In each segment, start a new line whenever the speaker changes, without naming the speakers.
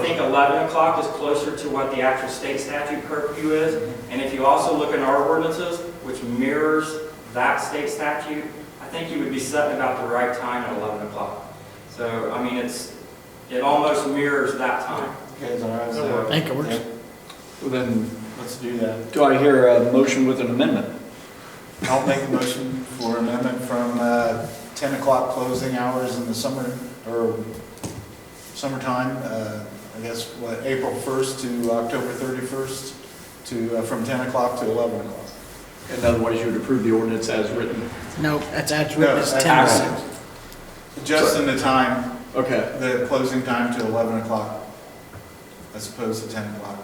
think 11 o'clock is closer to what the actual state statute curfew is. And if you also look in our ordinances, which mirrors that state statute, I think you would be setting about the right time at 11 o'clock. So, I mean, it's, it almost mirrors that time.
Okay, is that all right?
That works.
I think it works.
Well, then, let's do that.
Do I hear a motion with an amendment?
I'll make a motion for amendment from uh, 10 o'clock closing hours in the summer, or summertime, uh, I guess, what, April 1st to October 31st, to, uh, from 10 o'clock to 11 o'clock.
In other words, you would approve the ordinance as written?
No, that's actually,
No,
it's
that's
ten
actually-
o'clock.
Just in the time,
Okay.
the closing time to 11 o'clock, as opposed to 10 o'clock.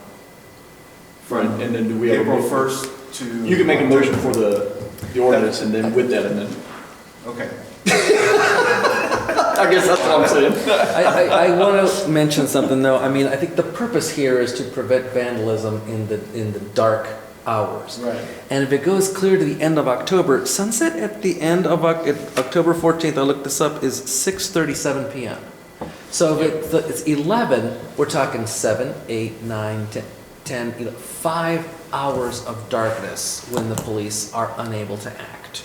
Right, and then do we have? a-
April 1st to.
You can make a motion for the, the ordinance and then with that amendment.
Okay.
I guess that's what I'm saying.
I, I, I want to mention something though. I mean, I think the purpose here is to prevent vandalism in the in the dark hours.
Right.
And if it goes clear to the end of October, sunset at the end of Oc- at October 14th, I looked this up, is 6:37 p.m. So if it, th- it's 11, we're talking 7, 8, 9, 10, 10, you know, five hours of darkness when the police are unable to act.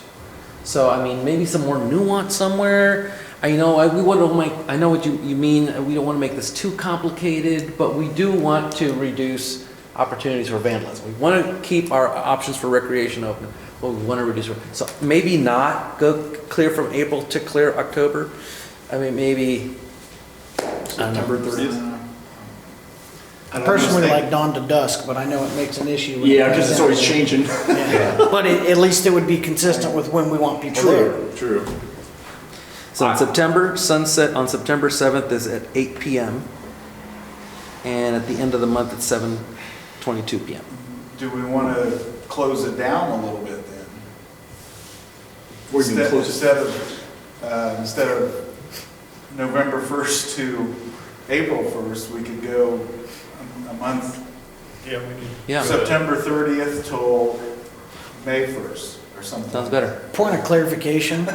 So I mean, maybe some more nuance somewhere. I know I, we want to make. I know what you, you mean. uh, We don't want to make this too complicated, but we do want to reduce opportunities for vandalism. We want to keep our options for recreation open, but we want to reduce. So maybe not go clear from April to clear October. I mean, maybe. I don't know.
September thirtieth?
Uh,
I personally like dawn to dusk, but I know it makes an issue. when it
Yeah,
comes
because it's
down
always
to it.
changing.
Yeah. But it- at least it would be consistent with when we want people there.
True.
So in September, sunset on September 7th is at 8 PM. And at the end of the month, it's 7:22 PM.
Do we want to close it down a little bit then?
Or you can
Instead-
close it.
Instead of, uh, instead of November 1st to April 1st, we could go a- a month,
Yeah, we can.
Yeah,
September 30th till May 1st or something.
sounds better.
Point of clarification,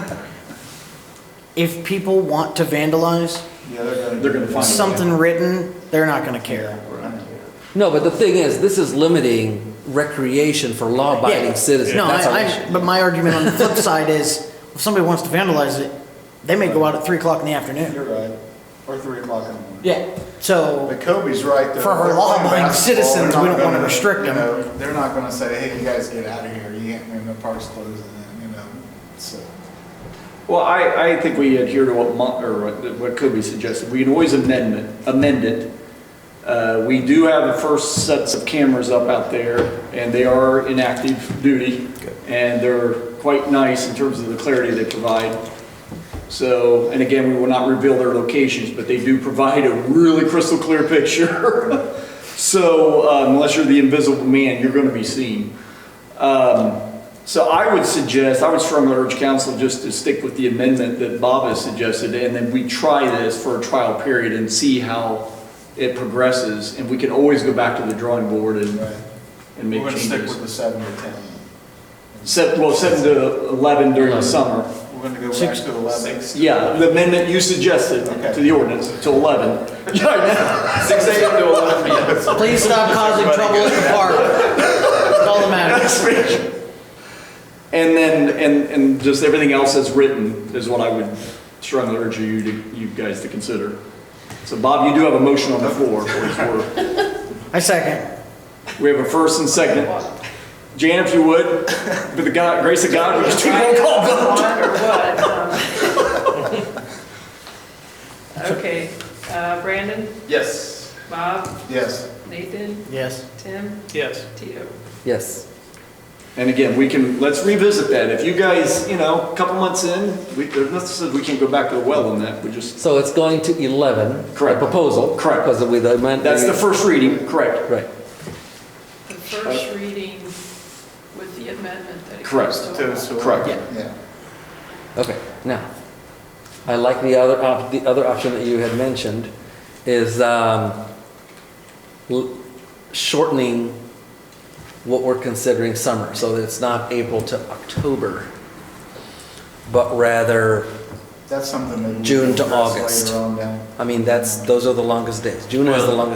if people want to vandalize,
Yeah, they're going to.
They're gonna find it.
something written, they're not gonna care.
No, but the thing is, this is limiting recreation for law-abiding
Yeah.
citizens.
No,
That's our
I,
issue.
I, but my argument on the flip side is, if somebody wants to vandalize it, they may go out at three o'clock in the afternoon.
You're right, or 3 o'clock in the morning.
Yeah. So,
But Kobe's right, though.
For our
They're playing
law-abiding
basketball.
citizens,
They're
we
not
don't wanna
gonna,
restrict
you
them.
know, They're not going to say, hey, you guys get out of here, you can't, I mean, the park's closing, you know, so.
Well, I, I think we adhere to what Mon, or what- what Kobe suggested. We can always amendment, amend it. Uh, we do have the first sets of cameras up out there and they are in active duty. And they're quite nice in terms of the clarity they provide. So, and again, we will not reveal their locations, but they do provide a really crystal clear picture. So uh, unless you're the invisible man, you're going to be seen. Um, So I would suggest, I would strongly urge council just to stick with the amendment that Bob has suggested, and then we try this for a trial period and see how it progresses. And we can always go back to the drawing board and,
Right. We're
and make
going to stick with
changes.
the 7 to 10.
Set, well, seven to 11 during the summer.
We're going to go back
Six-
to 11.
Yeah, the amendment you suggested to the ordinance, to 11. Yeah, I know.
Six AM to eleven PM.
please stop causing trouble at the park. That's all that matters.
And then, and, and just everything else that's written is what I would strongly urge you to, you guys to consider. So Bob, you do have a motion on the floor. for what it's worth.
I second.
We have a first and second. Jan, if you would, with the God, grace of God, we just do a roll call vote.
Or what? um. Okay, uh, Brandon,
Yes.
Bob,
Yes.
Nathan,
Yes.
Tim,
Yes.
Tito.
Yes.
And again, we can, let's revisit that. If you guys, you know, a couple months in, we, there's nothing says we can't go back to the well on that. We just,
So it's going to 11. the
Correct.
proposal.
Correct.
Because we, the amendment.
that's the first reading, correct?
Right.
The first reading with the amendment that it
Correct.
goes to.
To- so-
Correct.
Yeah.
Okay, now, I like the other, op- the other option that you had mentioned is um, l- shortening what we're considering summer, so that it's not April to October, but rather,
That's something that. we
June
can
to
address
August.
Later on down.
I mean, that's, those are the longest days. June is the
Well-
longest